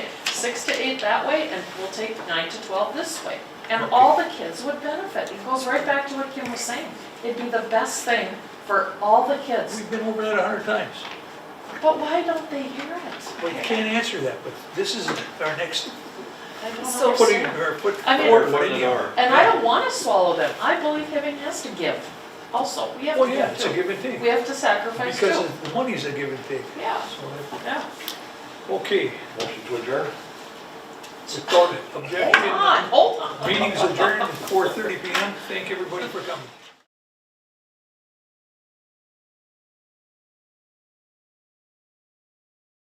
six to eight that way, and we'll take nine to twelve this way. And all the kids would benefit. It goes right back to what Kim was saying. It'd be the best thing for all the kids. We've been over that a hundred times. But why don't they hear it? We can't answer that, but this is our next I don't So- footing, understand. or foot, I mean- forward foot in the yard. And I don't wanna swallow them. I believe giving has to give. Also, we have Well, to yeah, give it's a too. give and take, We have to sacrifice because too. of- the money's a give and take. Yeah, So, yeah. Okay, Motion to adjourn? support it, Hold objection, on, hold on. meeting's adjourned at four thirty P M, thank everybody for coming.